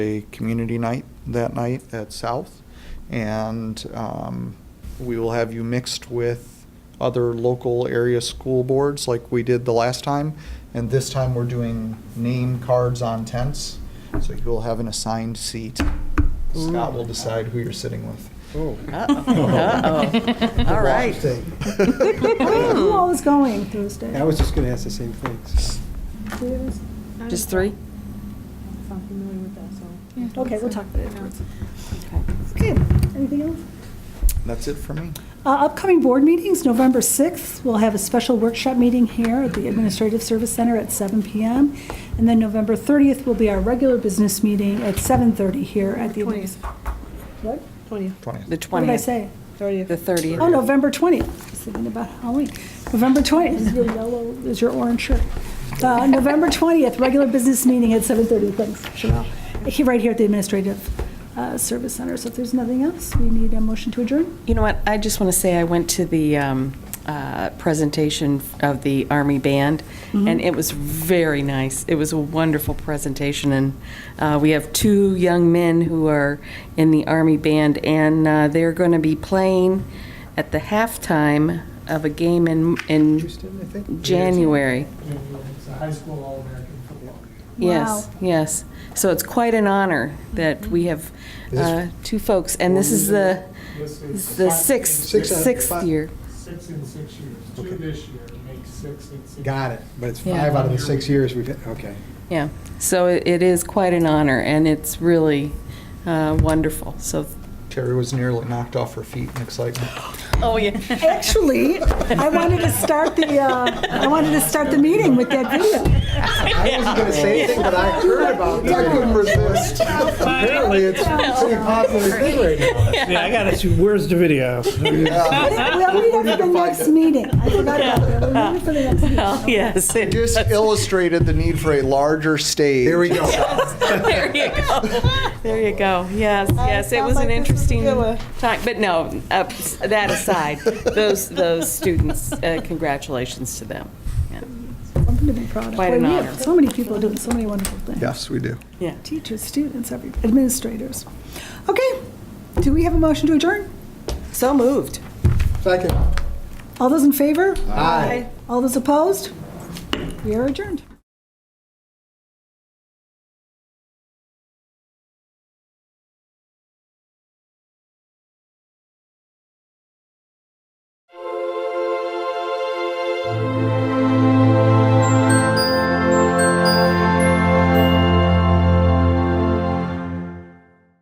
a community night that night at South. And um, we will have you mixed with other local area school boards like we did the last time. And this time, we're doing name cards on tents, so you'll have an assigned seat. Scott will decide who you're sitting with. Uh-oh, uh-oh. All right. Where are you all is going Thursday? I was just going to ask the same things. Just three? I'm familiar with that, so. Okay, we'll talk about it afterwards. Okay. Okay, anything else? That's it for me. Uh, Upcoming board meetings, November 6th, we'll have a special workshop meeting here at the Administrative Service Center at 7 PM. And then November 30th will be our regular business meeting at 7:30 here at the. admin- 20th. What? 20th, The 20th. twentieth. What did I say? 30th. The thirtieth. Oh, November 20th. I was thinking about Halloween. November 20th is your yellow, is your orange shirt. Uh, November 20th, regular business meeting at 7:30, thanks, Cheryl. Here, right here at the Administrative uh, Service Center. So if there's nothing else, we need a motion to adjourn. You know what, I just want to say I went to the um, uh, presentation of the Army Band, Mm-hmm. and it was very nice. It was a wonderful presentation, and uh, we have two young men who are in the Army Band, and uh, they're going to be playing at the halftime of a game in, in Houston, I think. January. It's a high school All-American football. Yes, yes. So it's quite an honor that we have Is this- uh, two folks, and this is the, This is the five- sixth, uh, Six out of sixth five. year. Six in six years, Okay. two this year, makes six in six. Got it, but it's Yeah. five out of the six years we've, had- okay. Yeah, so it it is quite an honor, and it's really uh, wonderful, so. Terry was nearly knocked off her feet in excitement. Oh, yeah. Actually, I wanted to start the, uh, I wanted to start the meeting with that video. I wasn't going to say anything, but I heard about I couldn't resist. Apparently, it's a pretty popular thing right now. Yeah, I got it. Where's the video? We'll need it for the next meeting. I forgot about that. We'll need it for the next meeting. Yes. it- Just illustrated the need for a larger stage. There we go. There you go. There you go. Yes, yes, it was an interesting time, but no, uh, that aside, those, those students, uh, congratulations to them. Yeah. Something to be proud of. Quite an Boy, we honor. have So many people doing so many wonderful things. Yes, we do. Yeah. Teachers, students, every- administrators. Okay, do we have a motion to adjourn? So moved. Second. All those in favor? Aye. All those opposed? We are adjourned.